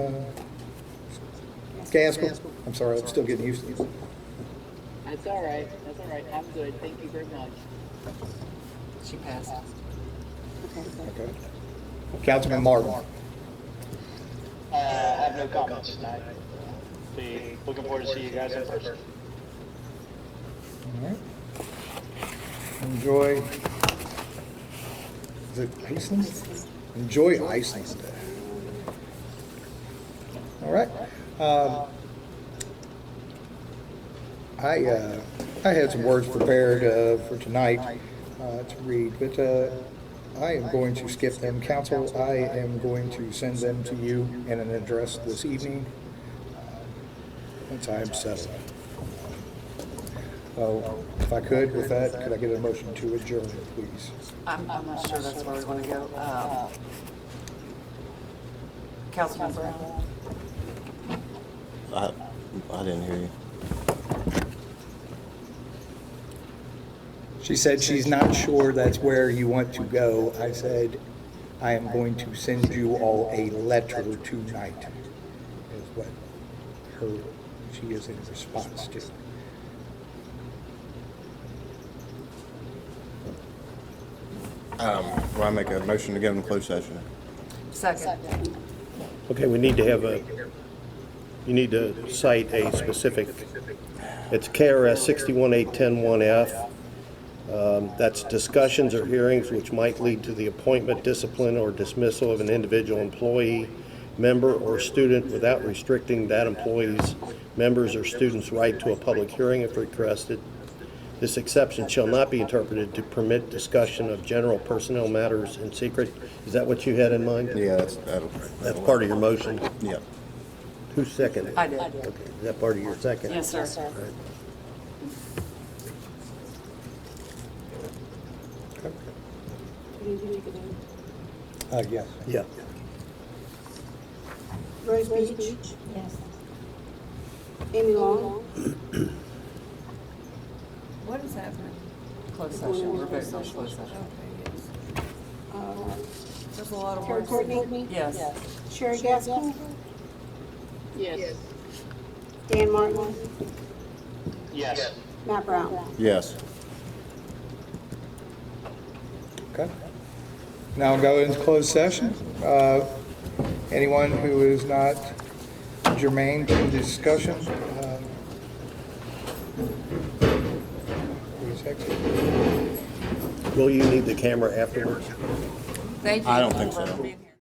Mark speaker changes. Speaker 1: Gaskell? I'm sorry, I'm still getting used to this.
Speaker 2: That's all right. That's all right. I'm good. Thank you very much. She passed.
Speaker 1: Okay. Councilman Martin?
Speaker 3: Uh, I have no comments tonight. Be looking forward to see you guys in person.
Speaker 1: All right. Enjoy. Is it Iceland? Enjoy Iceland. All right. Um, I, uh, I had some words prepared, uh, for tonight, uh, to read, but, uh, I am going to skip them. Council, I am going to send them to you in an address this evening. uh, Once I am settled. Oh, if I could, with that, could I get a motion to adjourn, please?
Speaker 4: I'm, I'm not sure that's where we want to go. Uh, Councilman Brown?
Speaker 5: I, I didn't hear you.
Speaker 1: She said she's not sure that's where you want to go. I said, I am going to send you all a letter tonight, is what her, she is in response to.
Speaker 5: Um, well, I make a motion to go into closed session.
Speaker 4: Second.
Speaker 6: Okay, we need to have a, you need to cite a specific, it's KRS 618101F. Um, That's discussions or hearings which might lead to the appointment, discipline, or dismissal of an individual employee, member, or student without restricting that employee's, members, or student's right to a public hearing if requested. This exception shall not be interpreted to permit discussion of general personnel matters in secret. Is that what you had in mind?
Speaker 5: Yeah, that's, that'll.
Speaker 6: That's part of your motion.
Speaker 5: Yeah.
Speaker 6: Who seconded?
Speaker 4: I did.
Speaker 6: Okay, is that part of your second?
Speaker 4: Yes, sir.
Speaker 1: Uh, yes.
Speaker 6: Yeah.
Speaker 7: Rose Beach. Yes. Amy Long.
Speaker 8: What is happening?
Speaker 4: Closed session, we're voting on closed session.
Speaker 7: uh,
Speaker 8: There's a lot of
Speaker 7: Terry
Speaker 8: words.
Speaker 7: Courtney.
Speaker 4: Yes.
Speaker 7: Sherry Gaskell.
Speaker 2: Yes.
Speaker 7: Dan Martin.
Speaker 3: Yes.
Speaker 7: Matt Brown.
Speaker 5: Yes.
Speaker 1: Okay. Now go into closed session. Uh, Anyone who is not germane to the discussion, uh, please exit.
Speaker 6: Will you need the camera afterwards?
Speaker 4: Thank you.
Speaker 5: I don't think so.
Speaker 4: Let me-